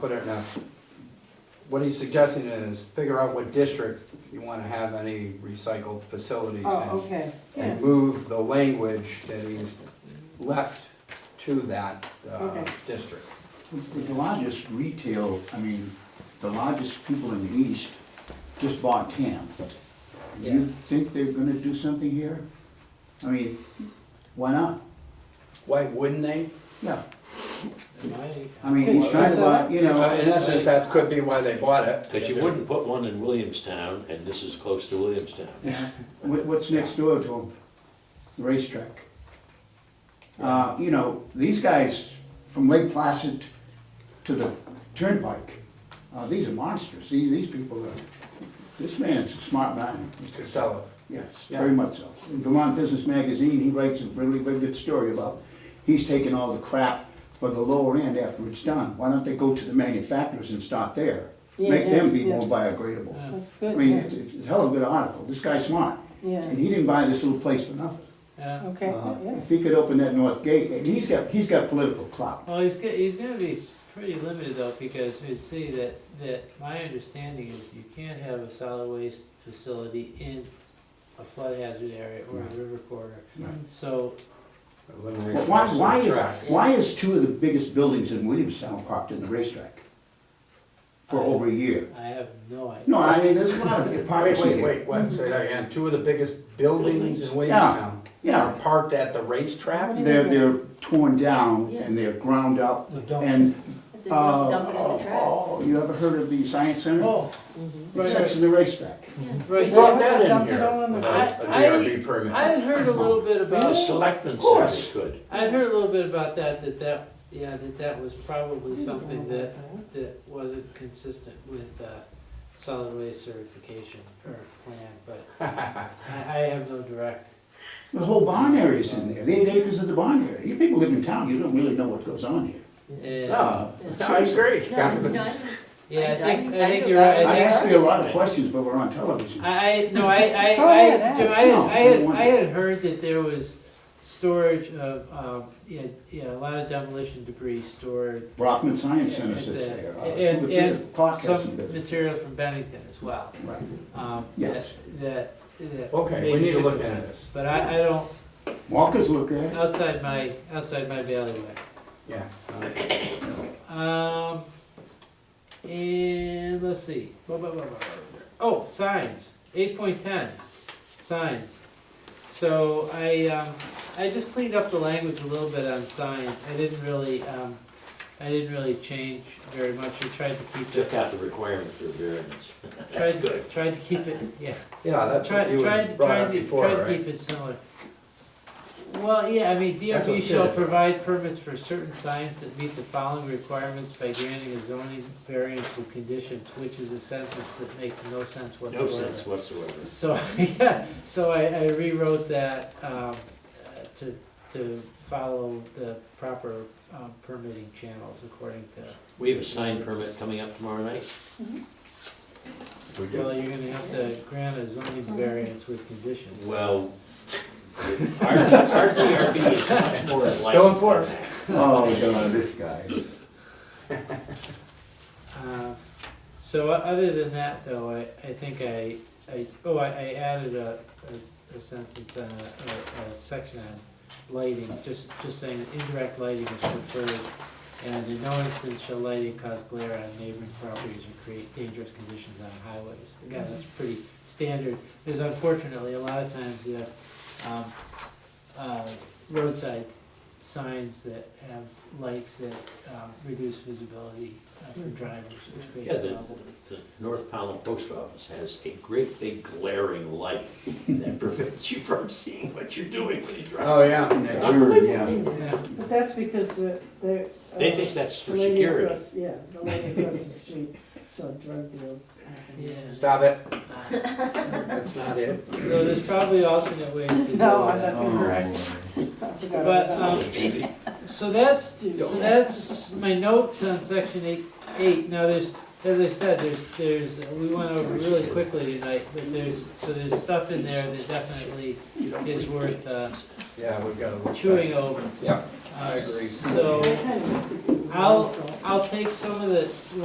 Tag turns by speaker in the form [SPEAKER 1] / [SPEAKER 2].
[SPEAKER 1] put it in a, what he's suggesting is figure out what district you wanna have any recycled facilities
[SPEAKER 2] Oh,
[SPEAKER 1] in.
[SPEAKER 2] okay, yeah,
[SPEAKER 1] And move the language that he's left to that, uh,
[SPEAKER 2] Okay.
[SPEAKER 1] district.
[SPEAKER 3] The largest retail, I mean, the largest people in the east just bought TAM. Do you think they're gonna do something here? I mean, why not?
[SPEAKER 1] Why wouldn't they?
[SPEAKER 3] Yeah,
[SPEAKER 4] Am I-
[SPEAKER 3] I mean, he's trying to buy, you know,
[SPEAKER 1] Uh, In essence, that could be why they bought it.
[SPEAKER 5] Because you wouldn't put one in Williamstown, and this is close to Williamstown.
[SPEAKER 3] yeah. What- what's next door to him? Racetrack. Uh, you know, these guys from Lake Placid to the Turnpike, uh, these are monsters. These, these people are, this man's a smart man.
[SPEAKER 1] To sell it.
[SPEAKER 3] Yes,
[SPEAKER 1] Yeah.
[SPEAKER 3] very much so. In Vermont Business Magazine, he writes a really very good story about, he's taking all the crap for the lower end after it's done. Why don't they go to the manufacturers and start there?
[SPEAKER 2] Yeah,
[SPEAKER 3] Make them
[SPEAKER 2] yes,
[SPEAKER 3] be more
[SPEAKER 2] yes.
[SPEAKER 3] biogradable.
[SPEAKER 2] that's
[SPEAKER 3] I
[SPEAKER 2] good,
[SPEAKER 3] mean,
[SPEAKER 2] yeah,
[SPEAKER 3] it's it's a hell of a good article. This guy's smart.
[SPEAKER 2] Yeah.
[SPEAKER 3] And he didn't buy this little place for nothing.
[SPEAKER 4] Yeah,
[SPEAKER 2] okay,
[SPEAKER 3] Uh,
[SPEAKER 2] yeah.
[SPEAKER 3] If he could open that north gate, and he's got, he's got political clout.
[SPEAKER 4] well, he's, go- he's gonna be pretty limited though, because you see that, that my understanding is you can't have a solid waste facility in a flood hazard area or a river corridor.
[SPEAKER 3] Right.
[SPEAKER 4] So,
[SPEAKER 3] But why, why is,
[SPEAKER 1] Track.
[SPEAKER 3] why is two of the biggest buildings in Williamstown parked in the racetrack? For over a year?
[SPEAKER 4] I have no idea.
[SPEAKER 3] No, I mean, there's a lot of
[SPEAKER 1] Wait,
[SPEAKER 3] hypocrisy here.
[SPEAKER 1] wait, wait, wait, say that again. Two of the biggest buildings in Williamstown are
[SPEAKER 3] Yeah,
[SPEAKER 1] parked at the racetrack?
[SPEAKER 3] they're, they're torn down and they're ground up and,
[SPEAKER 6] They
[SPEAKER 3] uh,
[SPEAKER 6] dump it in the trash.
[SPEAKER 3] oh, you ever heard of the science center?
[SPEAKER 4] Oh, right,
[SPEAKER 3] Sex
[SPEAKER 4] right,
[SPEAKER 3] and the racetrack.
[SPEAKER 4] right.
[SPEAKER 1] Who brought that in
[SPEAKER 2] Dumped it
[SPEAKER 1] here?
[SPEAKER 2] all in the-
[SPEAKER 1] without a
[SPEAKER 4] I-
[SPEAKER 1] DRB
[SPEAKER 4] I
[SPEAKER 1] permit.
[SPEAKER 4] had heard a little bit
[SPEAKER 5] The
[SPEAKER 4] about,
[SPEAKER 5] selectmen
[SPEAKER 3] Of
[SPEAKER 5] said
[SPEAKER 3] course.
[SPEAKER 5] they could.
[SPEAKER 4] I had heard a little bit about that, that that, yeah, that that was probably something that, that wasn't consistent with, uh, solid waste certification or plan, but I, I have no direct.
[SPEAKER 3] The whole barn area's in there, the eight acres of the barn area. You people live in town, you don't really know what goes on here.
[SPEAKER 4] Yeah,
[SPEAKER 1] No, no, I agree.
[SPEAKER 6] No, no, I-
[SPEAKER 4] yeah, I think, I
[SPEAKER 6] I- I
[SPEAKER 4] think
[SPEAKER 6] do
[SPEAKER 4] you're
[SPEAKER 6] that.
[SPEAKER 4] right.
[SPEAKER 3] I
[SPEAKER 4] I think-
[SPEAKER 3] asked you a lot of questions, but we're on television.
[SPEAKER 4] I, I, no, I, I,
[SPEAKER 2] Go
[SPEAKER 4] I,
[SPEAKER 2] ahead,
[SPEAKER 4] Jim, I,
[SPEAKER 2] ask.
[SPEAKER 4] had-
[SPEAKER 3] No,
[SPEAKER 4] I had,
[SPEAKER 3] don't worry.
[SPEAKER 4] I had heard that there was storage of, um, yeah, yeah, a lot of demolition debris stored.
[SPEAKER 3] Brockman Science Center
[SPEAKER 4] and,
[SPEAKER 3] sits
[SPEAKER 4] uh,
[SPEAKER 3] there, uh, two or
[SPEAKER 4] And,
[SPEAKER 3] three of the
[SPEAKER 4] and some
[SPEAKER 3] podcasting business.
[SPEAKER 4] material from Bennington as well,
[SPEAKER 3] Right.
[SPEAKER 4] um, that,
[SPEAKER 3] Yes.
[SPEAKER 4] that. that
[SPEAKER 1] Okay, we
[SPEAKER 4] maybe
[SPEAKER 1] need to
[SPEAKER 4] should-
[SPEAKER 1] look into this.
[SPEAKER 4] But I, I don't,
[SPEAKER 3] Walkers look at it.
[SPEAKER 4] outside my, outside my bailiwick.
[SPEAKER 1] Yeah.
[SPEAKER 4] Um, and let's see. Blah, blah, blah, blah, blah. Oh, signs. Eight point ten, signs. So I, um, I just cleaned up the language a little bit on signs. I didn't really, um, I didn't really change very much. I tried to keep
[SPEAKER 5] Took
[SPEAKER 4] it,
[SPEAKER 5] out the requirement for variance.
[SPEAKER 4] tried, tried to keep it, yeah.
[SPEAKER 1] Yeah, that's
[SPEAKER 4] Tried,
[SPEAKER 1] what you
[SPEAKER 4] tried,
[SPEAKER 1] had brought
[SPEAKER 4] tried
[SPEAKER 1] up
[SPEAKER 4] to,
[SPEAKER 1] before,
[SPEAKER 4] tried to
[SPEAKER 1] right?
[SPEAKER 4] keep it similar. Well, yeah, I mean,
[SPEAKER 1] That's what
[SPEAKER 4] DRB
[SPEAKER 1] it
[SPEAKER 4] shall
[SPEAKER 1] said.
[SPEAKER 4] provide permits for certain signs that meet the following requirements by granting a zoning variance with conditions, which is a sentence that makes no sense
[SPEAKER 5] No sense
[SPEAKER 4] whatsoever.
[SPEAKER 5] whatsoever.
[SPEAKER 4] So, yeah, so I, I rewrote that, um, uh, to, to follow the proper, um, permitting channels according to,
[SPEAKER 5] We have a sign permit coming up tomorrow night.
[SPEAKER 1] We
[SPEAKER 4] well,
[SPEAKER 1] do.
[SPEAKER 4] you're gonna have to grant a zoning variance with conditions.
[SPEAKER 5] Well, our, our DRB is much more enlightened.
[SPEAKER 1] Still in force.
[SPEAKER 3] Oh, God, this guy.
[SPEAKER 4] Um, So o- other than that, though, I, I think I, I, oh, I, I added a, a- a sentence, on a, a, a section on lighting, just, just saying indirect lighting is preferred, and in no instance shall lighting cause glare on neighboring properties or create dangerous conditions on highways. Again, that's pretty standard, because unfortunately, a lot of times you have, um, uh, roadside signs that have lights that, um, reduce visibility uh, for drivers, which creates
[SPEAKER 5] Yeah,
[SPEAKER 4] a
[SPEAKER 5] the-
[SPEAKER 4] problem.
[SPEAKER 5] The North Pownell Post Office has a great big glaring light that prevents you from seeing what you're doing when you drive.
[SPEAKER 1] Oh, yeah.
[SPEAKER 3] Sure, yeah.
[SPEAKER 4] Yeah.
[SPEAKER 2] But that's because uh, they're. uh,
[SPEAKER 5] They think that's
[SPEAKER 2] the
[SPEAKER 5] for
[SPEAKER 2] lady
[SPEAKER 5] security.
[SPEAKER 2] across- Yeah, the lady across the street, so drug deals. happen.
[SPEAKER 4] Yeah.
[SPEAKER 1] Stop it. That's not it.
[SPEAKER 4] So there's probably alternate ways to do
[SPEAKER 2] No, I'm
[SPEAKER 4] that.
[SPEAKER 2] not-
[SPEAKER 3] Oh,
[SPEAKER 4] But, um, so that's, so that's my notes on section eight, eight. Now, there's, as I said, there's, there's, uh, we went over really quickly tonight, but there's, so there's stuff in there that definitely is worth, uh,
[SPEAKER 1] Yeah, we've got to.
[SPEAKER 4] chewing over.
[SPEAKER 1] Yeah,
[SPEAKER 4] I
[SPEAKER 1] agree.
[SPEAKER 4] So,
[SPEAKER 2] and
[SPEAKER 4] I'll-
[SPEAKER 2] also.
[SPEAKER 4] I'll take some of the